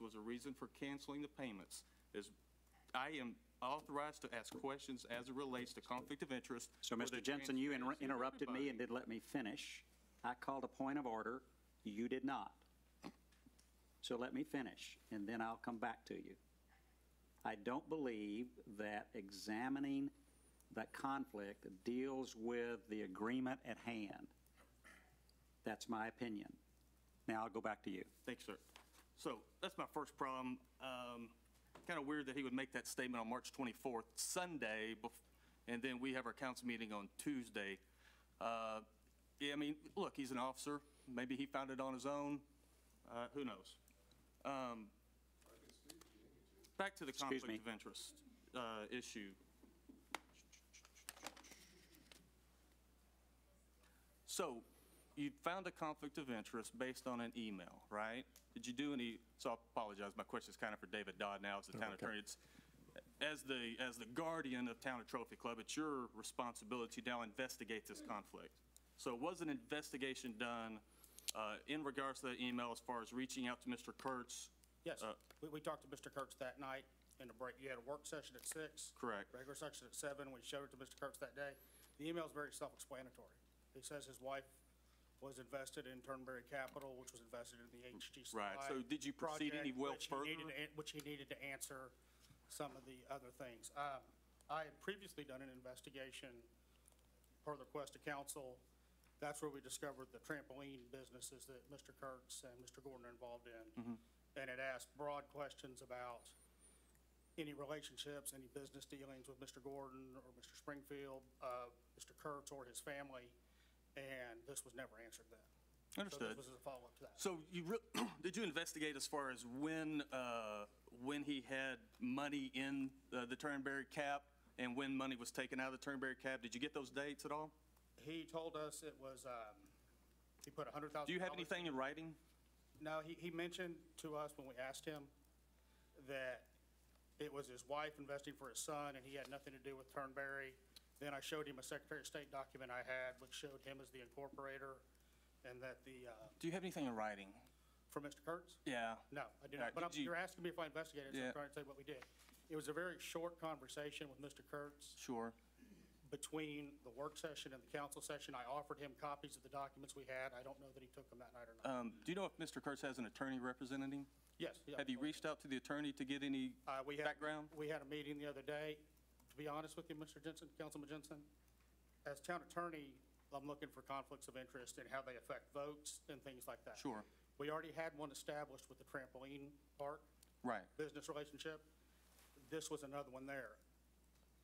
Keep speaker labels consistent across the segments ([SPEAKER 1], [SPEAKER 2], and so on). [SPEAKER 1] was a reason for canceling the payments. Is, I am authorized to ask questions as it relates to conflict of interest.
[SPEAKER 2] So,
[SPEAKER 1] with the
[SPEAKER 2] Mr. Jensen, you inter-
[SPEAKER 1] transparency of
[SPEAKER 2] interrupted me and
[SPEAKER 1] everybody.
[SPEAKER 2] did let me finish. I called a point of order. You did not. So let me finish, and then I'll come back to you. I don't believe that examining that conflict deals with the agreement at hand. That's my opinion. Now I'll go back to you.
[SPEAKER 1] Thanks, sir. So that's my first problem. Kind of weird that he would make that statement on March 24th, Sunday, bef- and then we have our council meeting on Tuesday. Uh, Yeah, I mean, look, he's an officer. Maybe he found it on his own. Uh, Who knows? Um, Back to the
[SPEAKER 2] Excuse
[SPEAKER 1] conflict of
[SPEAKER 2] me.
[SPEAKER 1] interest uh, issue. So you found a conflict of interest based on an email, right? Did you do any, so I apologize, my question is kind of for David Dodd now as the town attorney. It's, as the, as the guardian of Town of Trophy Club, it's your responsibility to now investigate this conflict. So was an investigation done uh, in regards to that email as far as reaching out to Mr. Kurtz?
[SPEAKER 3] Yes,
[SPEAKER 1] Uh,
[SPEAKER 3] we, we talked to Mr. Kurtz that night in the break. You had a work session at six.
[SPEAKER 1] Correct.
[SPEAKER 3] Regular session at seven. We showed it to Mr. Kurtz that day. The email's very self-explanatory. He says his wife was invested in Turnberry Capital, which was invested in the HGCI.
[SPEAKER 1] Right, so did you proceed any
[SPEAKER 3] project,
[SPEAKER 1] well
[SPEAKER 3] which he needed
[SPEAKER 1] further?
[SPEAKER 3] to an- Which he needed to answer some of the other things. Um, I had previously done an investigation per the request of council. That's where we discovered the trampoline businesses that Mr. Kurtz and Mr. Gordon are involved in.
[SPEAKER 1] Mm-hmm.
[SPEAKER 3] And it asked broad questions about any relationships, any business dealings with Mr. Gordon or Mr. Springfield, uh, Mr. Kurtz or his family, and this was never answered then. So
[SPEAKER 1] Understood.
[SPEAKER 3] this was a follow-up to that.
[SPEAKER 1] So you, re- did you investigate as far as when, uh, when he had money in uh, the Turnberry cap and when money was taken out of the Turnberry cap? Did you get those dates at all?
[SPEAKER 3] He told us it was, um, he put a hundred thousand.
[SPEAKER 1] Do you have anything in writing?
[SPEAKER 3] No, he, he mentioned to us when we asked him that it was his wife investing for his son and he had nothing to do with Turnberry. Then I showed him a Secretary of State document I had, which showed him as the incorporator and that the, uh,
[SPEAKER 1] Do you have anything in writing?
[SPEAKER 3] for Mr. Kurtz?
[SPEAKER 1] Yeah.
[SPEAKER 3] No, I do
[SPEAKER 1] All right,
[SPEAKER 3] not. But
[SPEAKER 1] did
[SPEAKER 3] I'm-
[SPEAKER 1] you-
[SPEAKER 3] you're asking me if I investigated, so
[SPEAKER 1] Yeah.
[SPEAKER 3] I'm trying to tell you what we did. It was a very short conversation with Mr. Kurtz
[SPEAKER 1] Sure.
[SPEAKER 3] between the work session and the council session. I offered him copies of the documents we had. I don't know that he took them that night or not.
[SPEAKER 1] Um, Do you know if Mr. Kurtz has an attorney representing him?
[SPEAKER 3] Yes. yeah.
[SPEAKER 1] Have you reached out to the attorney to get any
[SPEAKER 3] Uh, we had-
[SPEAKER 1] background?
[SPEAKER 3] We had a meeting the other day. To be honest with you, Mr. Jensen, Councilman Jensen, as town attorney, I'm looking for conflicts of interest and how they affect votes and things like that.
[SPEAKER 1] Sure.
[SPEAKER 3] We already had one established with the trampoline park
[SPEAKER 1] Right.
[SPEAKER 3] business relationship. This was another one there.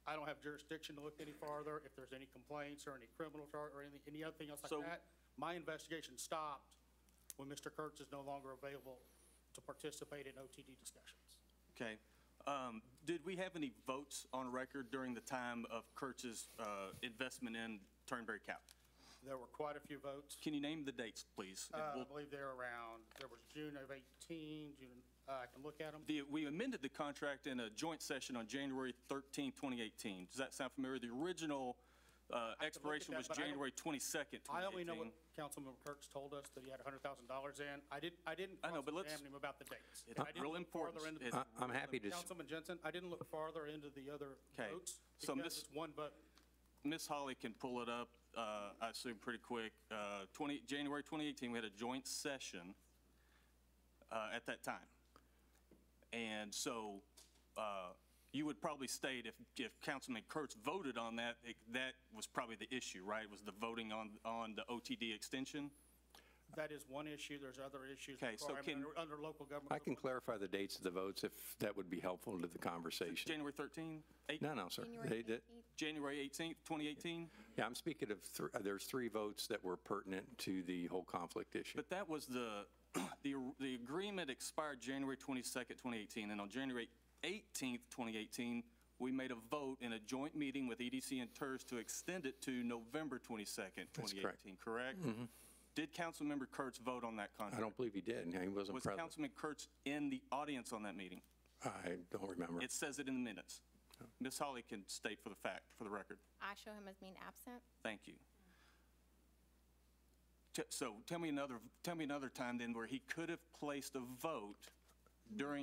[SPEAKER 3] I don't have jurisdiction to look any farther. If there's any complaints or any criminal charge or anything, any other thing else
[SPEAKER 1] So-
[SPEAKER 3] like that, my investigation stopped when Mr. Kurtz is no longer available to participate in OTD discussions.
[SPEAKER 1] Okay. Um, Did we have any votes on record during the time of Kurtz's uh, investment in Turnberry cap?
[SPEAKER 3] There were quite a few votes.
[SPEAKER 1] Can you name the dates, please? And
[SPEAKER 3] Uh, I
[SPEAKER 1] we'll-
[SPEAKER 3] believe they're around, there was June of 18, June, uh, I can look at them.
[SPEAKER 1] The, we amended the contract in a joint session on January 13, 2018. Does that sound familiar? The original uh, expiration
[SPEAKER 3] that,
[SPEAKER 1] was
[SPEAKER 3] but I don't-
[SPEAKER 1] January 22nd, 2018.
[SPEAKER 3] I only know what Councilmember Kurtz told us, that he had $100,000 in. I didn't, I didn't
[SPEAKER 1] I know, but let's-
[SPEAKER 3] cross-examine him about the dates.
[SPEAKER 1] It's
[SPEAKER 3] I didn't
[SPEAKER 1] real
[SPEAKER 3] look
[SPEAKER 1] important.
[SPEAKER 3] farther into-
[SPEAKER 1] It's-
[SPEAKER 4] I- I'm happy to, s-
[SPEAKER 3] Councilman Jensen, I didn't look farther into the other
[SPEAKER 1] 'Kay.
[SPEAKER 3] votes.
[SPEAKER 1] So,
[SPEAKER 3] because
[SPEAKER 1] Miss-
[SPEAKER 3] it's One vote,
[SPEAKER 1] Ms. Holly can pull it up, uh, I assume, pretty quick. Uh, 20, January 2018, we had a joint session uh, at that time. And so uh, you would probably state if, if Councilman Kurtz voted on that, it- that was probably the issue, right? Was the voting on, on the OTD extension?
[SPEAKER 3] that is one issue, there's other issues.
[SPEAKER 1] Okay, so
[SPEAKER 3] requirement
[SPEAKER 1] can-
[SPEAKER 3] under- Under local government.
[SPEAKER 4] I can clarify the dates of the votes if that would be helpful to the conversation.
[SPEAKER 1] January 13? Eight-
[SPEAKER 4] No, no, sir. They
[SPEAKER 5] January
[SPEAKER 4] did-
[SPEAKER 5] 18th.
[SPEAKER 1] January 18th, 2018?
[SPEAKER 4] Yeah, I'm speaking of, thr- uh, there's three votes that were pertinent to the whole conflict issue.
[SPEAKER 1] But that was the, the, the agreement expired January 22nd, 2018, and on January 18th, 2018, we made a vote in a joint meeting with EDC and TERS to extend it to November 22nd,
[SPEAKER 4] That's correct. Mm-hmm.
[SPEAKER 1] 2018, correct? Did Councilmember Kurtz vote on that
[SPEAKER 4] I
[SPEAKER 1] contract?
[SPEAKER 4] don't believe he did, and he wasn't
[SPEAKER 1] Was
[SPEAKER 4] present.
[SPEAKER 1] Councilman Kurtz in the audience on that meeting?
[SPEAKER 4] I don't remember.
[SPEAKER 1] It says it in the minutes. Ms. Holly can state for the fact, for the record.
[SPEAKER 5] I show him as being absent.
[SPEAKER 1] Thank you. T- So tell me another, tell me another time then where he could have placed a vote during